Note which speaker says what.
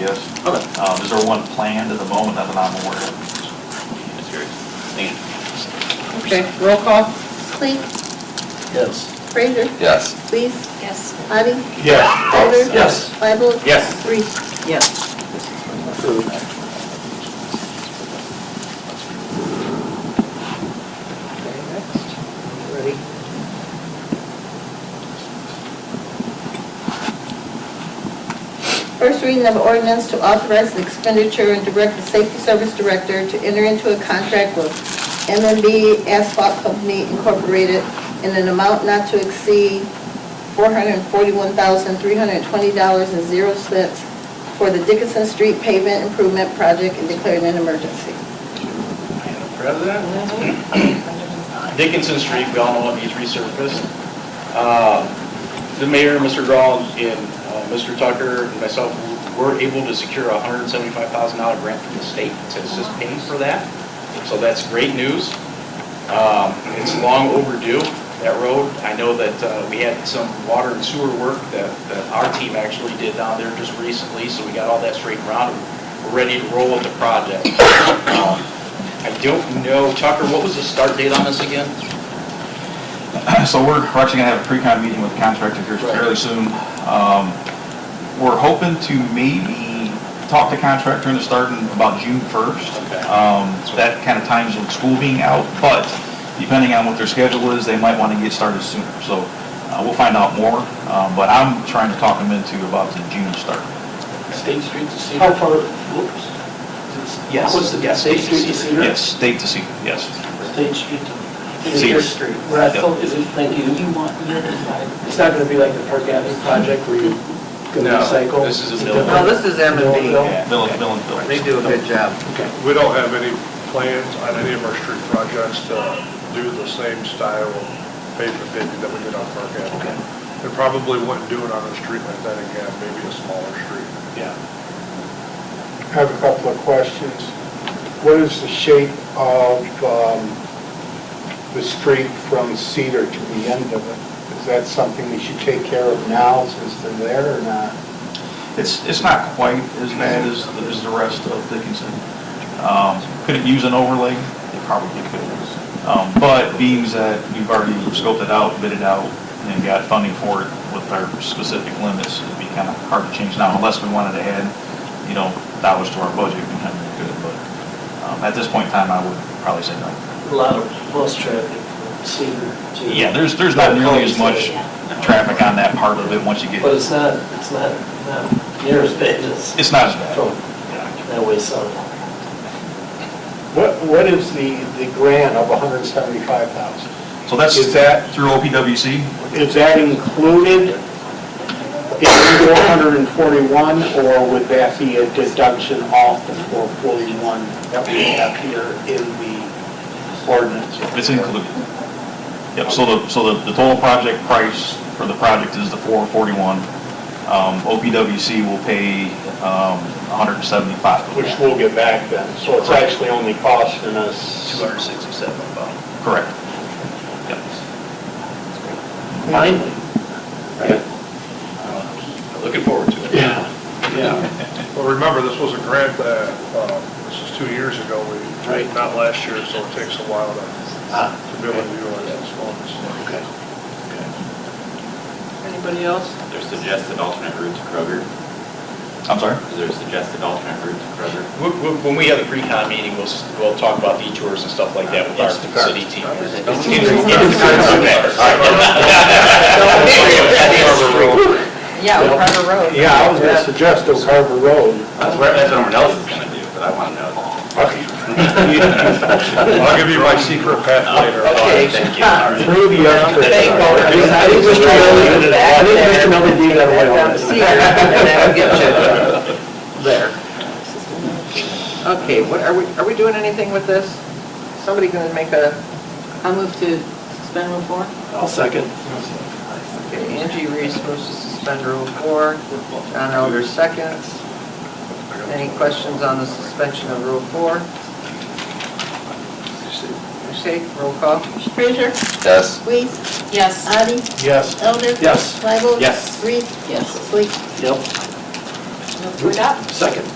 Speaker 1: is.
Speaker 2: Okay.
Speaker 1: Um, Is there one planned at the moment that I'm aware of?
Speaker 2: That's great. Thank you.
Speaker 3: Okay, roll call?
Speaker 4: Clee,
Speaker 5: Yes.
Speaker 4: Fraser,
Speaker 6: Yes.
Speaker 4: Lees,
Speaker 7: Yes.
Speaker 4: Addie,
Speaker 1: Yes.
Speaker 4: Tyler.
Speaker 1: Yes.
Speaker 4: Bible.
Speaker 2: Yes.
Speaker 4: Reese.
Speaker 3: Yes.
Speaker 5: Approved.
Speaker 3: Okay, next. Ready?
Speaker 4: First reading of ordinance to authorize the expenditure and direct the safety service director to enter into a contract with MMB Asphalt Company Incorporated in an amount not to exceed $441,320.00 for the Dickinson Street pavement improvement project and declaring an emergency.
Speaker 8: Madam President? Dickinson Street, we all know it needs resurfaced. Uh, The mayor, Mr. Dahl, and uh, Mr. Tucker, and myself, were able to secure a $175,000 grant from the state to assist paying for that, so that's great news. Um, It's long overdue, that road. I know that uh, we had some water and sewer work that that our team actually did down there just recently, so we got all that straightened out, and we're ready to roll with the project. Um, I don't know, Tucker, what was the start date on this again?
Speaker 1: So we're we're actually going to have a pre-con meeting with the contractor here
Speaker 8: Right.
Speaker 1: fairly soon. Um, We're hoping to maybe talk to contractor into starting about June 1st.
Speaker 8: Okay.
Speaker 1: Um, so That kind of times with school being out, but depending on what their schedule is, they might want to get started sooner. So uh, we'll find out more, um, but I'm trying to talk them into about the June start.
Speaker 5: State Street to Cedar.
Speaker 2: How far-
Speaker 5: Whoops.
Speaker 8: Yes.
Speaker 5: What was the,
Speaker 8: Yes.
Speaker 5: State Street to Cedar?
Speaker 1: Yes, state to see, yes.
Speaker 5: State Street to.
Speaker 1: Cedar.
Speaker 5: Street. What I
Speaker 1: Yep.
Speaker 5: thought Oh, is, it- thank you, you want, you decide. it's not gonna be like the Park Avenue project where you go
Speaker 8: No,
Speaker 5: recycle.
Speaker 8: this is a
Speaker 5: It's
Speaker 8: mill.
Speaker 5: different.
Speaker 8: No,
Speaker 2: this is M and B.
Speaker 5: Millville?
Speaker 8: Yeah.
Speaker 1: Bill and Bill and Bill.
Speaker 2: do a good job.
Speaker 5: Okay.
Speaker 9: We don't have any plans on any of our street projects to do the same style of pavement paving that we did on Park Avenue. And probably wouldn't do it on a street like that again, maybe a smaller street.
Speaker 8: Yeah.
Speaker 10: I have a couple of questions. What is the shape of um, the street from Cedar to the end of it? Is that something we should take care of now since they're there or not?
Speaker 1: It's, it's not quite as bad as, as the rest of Dickinson. Um, Could it use an overlay? It probably could. Um, But being that we've already scoped it out, bid it out, and got funding for it with our specific limits, it'd be kind of hard to change now unless we wanted to add, you know, dollars to our budget, we kind of could, but um, at this point in time, I would probably say no.
Speaker 5: A lot of bus traffic from Cedar to.
Speaker 1: Yeah, there's, there's not nearly as much
Speaker 7: Yeah.
Speaker 1: traffic on that part of it once you
Speaker 5: But
Speaker 1: get,
Speaker 5: it's not, it's not, not near as bad as
Speaker 1: it's not as bad.
Speaker 5: from
Speaker 1: Yeah.
Speaker 5: that way south.
Speaker 10: What, what is the, the grant of 175,000?
Speaker 1: So that's
Speaker 10: Is that-
Speaker 1: through OPWC.
Speaker 10: Is that included in 441 or would that be a deduction off the 441 that we have here in the ordinance?
Speaker 1: It's included. Yep, so the, so the, the total project price for the project is the four forty-one. Um, OPWC will pay, um, hundred and seventy-five.
Speaker 10: Which we'll get back then, so it's actually only costing us.
Speaker 8: 267 above.
Speaker 1: Correct. Yep.
Speaker 5: Finally.
Speaker 8: Uh, Looking forward to it.
Speaker 5: Yeah, yeah.
Speaker 9: But remember, this was a grant that, uh, this is two years ago, we,
Speaker 5: Right.
Speaker 9: not last year, so it takes a while to
Speaker 5: Ah,
Speaker 9: to be able to utilize those funds.
Speaker 5: okay.
Speaker 3: Anybody else?
Speaker 2: Their suggested alternate route to Kroger.
Speaker 1: I'm sorry?
Speaker 2: Is there a suggested alternate route to Kroger?
Speaker 8: Wh- wh- When we have the pre-con meeting, we'll, s- we'll talk about detours and stuff like that with our
Speaker 2: Instacart.
Speaker 8: city team.
Speaker 7: Yeah, on Carter Road.
Speaker 10: Yeah, I was gonna suggest Oak Harbor Road.
Speaker 2: That's what, that's what everyone else is gonna do, but I wanna know.
Speaker 9: I'll give you my secret path
Speaker 8: Uh,
Speaker 9: later.
Speaker 2: Okay, thank you. All right.
Speaker 10: Through the entrance.
Speaker 2: Thank you.
Speaker 10: I think I think Mr. Miller, I think Mr. Miller did that way on
Speaker 3: See you, and that'll get
Speaker 5: There.
Speaker 3: you. Okay, what, are we, are we doing anything with this? Somebody gonna make a? I move to suspend rule four.
Speaker 5: I'll second.
Speaker 3: Okay, Angie Reese moves to suspend rule four. John Elder seconds. Any questions on the suspension of rule four? Okay, roll call.
Speaker 4: Fraser,
Speaker 6: Yes.
Speaker 4: Lees,
Speaker 7: Yes.
Speaker 4: Addie,
Speaker 10: Yes.
Speaker 4: Elder.
Speaker 5: Yes.
Speaker 4: Bible.
Speaker 8: Yes.
Speaker 4: Reese.
Speaker 7: Yes.
Speaker 4: Lee.
Speaker 5: Yep.
Speaker 11: Motion to approve that?
Speaker 5: Second.